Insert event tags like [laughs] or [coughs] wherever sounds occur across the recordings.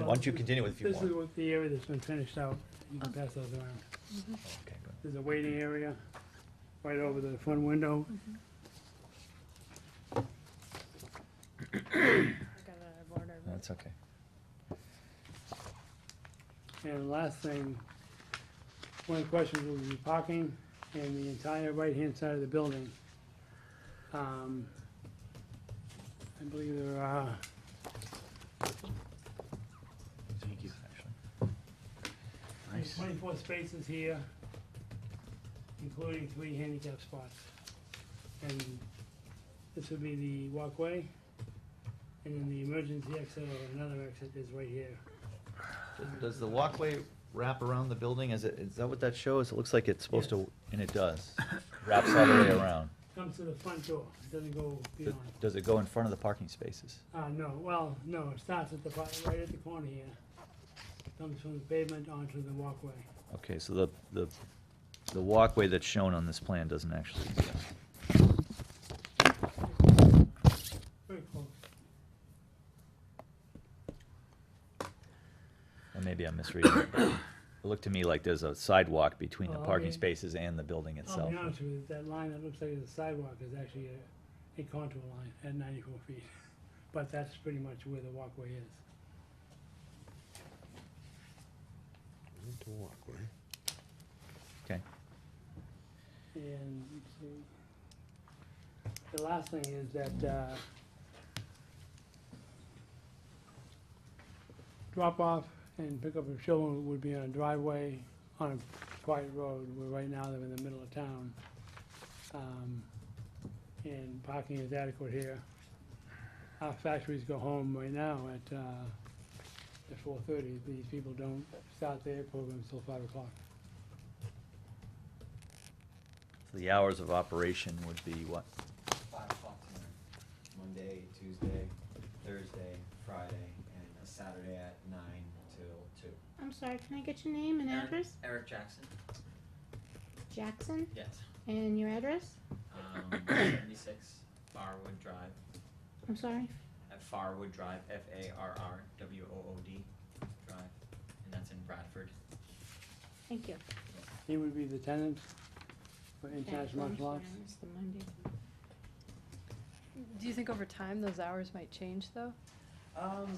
Why don't you continue if you This want? is what the area that's been finished out. You can pass those around. Okay, good. There's a waiting area right over the front window. got it out of order. but- That's okay. And the last thing, one of the questions will be parking and the entire right-hand side of the building. Um, I believe there are, Thank you. Actually, there's twenty-four spaces here, including three handicap spots. And this would be the walkway, and then the emergency exit or another exit is right here. Does- Does the walkway wrap around the building? Is it, is that what that shows? It looks like it's supposed to, and it does. Wraps all the way around. Comes to the front door, it doesn't go Th- beyond. Does it go in front of the parking spaces? Uh, no, well, no, it starts at the, far- right at the corner here. Comes from the pavement onto the walkway. Okay, so the, the, the walkway that's shown on this plan doesn't actually exist. Very close. Or maybe I'm misreading it. but It looked to me like there's a sidewalk between the Oh, parking okay. spaces and the building I'll itself. be honest with you, that line that looks like it's a sidewalk is actually a, a contour line at ninety-four feet. [laughs] But that's pretty much where the walkway is. Need to walk, right? Okay, And let's see, the last thing is that, uh, drop off and pick up of children would be on a driveway on a quiet road, where right now they're in the middle of town. Um, and parking is adequate here. Our factories go home right now at, uh, at four thirty, these people don't start their programs till five o'clock. so the hours of operation would be what? five o'clock tonight. Monday, Tuesday, Thursday, Friday, and a Saturday at nine till two. I'm sorry, can I get your name and Eric- address? Eric Jackson? Jackson, Yes. and your address? Um, [coughs] seventy-six Farwood Drive, I'm sorry. at Farwood Drive, F A R R W O O D Drive, and that's in Bradford. Thank you. He would be the tenant for in-charge Yeah, I'm lunch sorry, lots. I missed the Monday. Do you think over time those hours might change though? Um,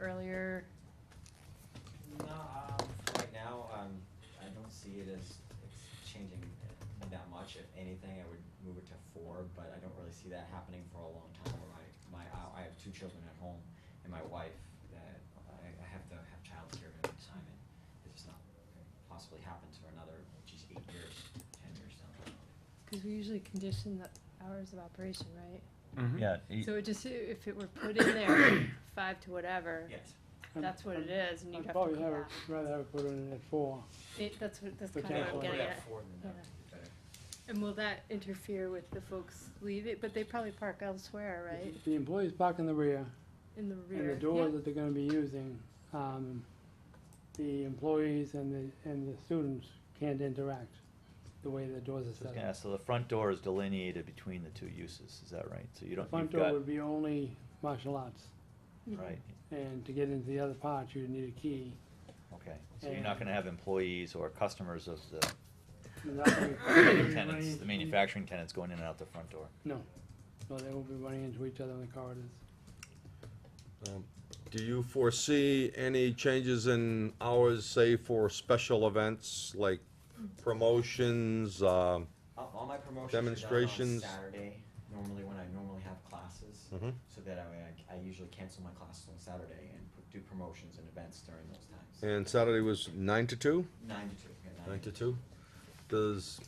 Earlier, no, um, right now, um, I don't see it as, it's changing that much. If anything, I would move it to four, but I don't really see that happening for a long time. My, my, I- I have two children at home and my wife that I, I have to have childcare at any time and it's just not gonna possibly happen for another, just eight years, ten years down the road. because we usually condition the hours of operation, right? Mm-hmm. Mm-hmm. Yeah, e- So it just, if it were put in there, [coughs] five to whatever, Yes. that's what it is and you'd I'd have to go probably have it, back. rather have it put in at four. It- That's what, that's But kind of that's what I'm why- getting Yeah, at. four than Yeah. that would be better. And will that interfere with the folks leaving, but they probably park elsewhere, right? The employees park in the rear, In the Mm-hmm. and rear? the door that they're gonna be using, um, the employees and the, and the students can't interact the way the doors are so I was set gonna up. ask, so the front door is delineated between the two uses, is that right? So you The don't, front you've door got, would be only martial arts, right, and to get into the other part, you'd need a key. okay. So you're not gonna have employees or customers of [coughs] the And that way- tenants, the manufacturing tenants going in and out the front door. No, no, they won't be running into each other in the corridors. Um, Do you foresee any changes in hours, say for special events like promotions, um, All, all my promotions are done on Demonstrations. Saturday, normally when I normally have classes, Mhm. so that I, I usually cancel my classes on Saturday and put- do promotions and events during those times. and Saturday was nine to two? Nine to two, yeah, Nine to two? Does,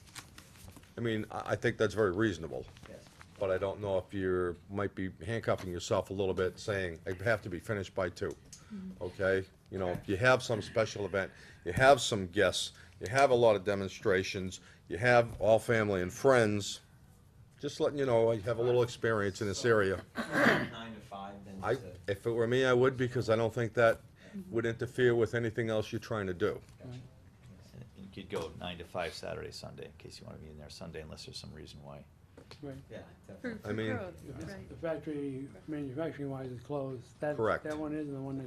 I mean, I, I think that's very reasonable, Yes, but I don't know if you're, might be handcuffing yourself a little bit, saying, I have to be finished by two. Okay, you know, if you have some special event, you have some guests, you have a lot of demonstrations, you have all family and friends, just letting you know, I have a little experience in this area. nine to five, then I, to- if it were me, I would, because I don't think that would interfere with anything else you're trying to do. And You could go nine to five Saturday, Sunday, in case you wanna be in there Sunday unless there's some reason why. Right. yeah, For, definitely. I for mean- growth, The right. the factory, manufacturing wise is closed. That- Correct. That one is, and the one that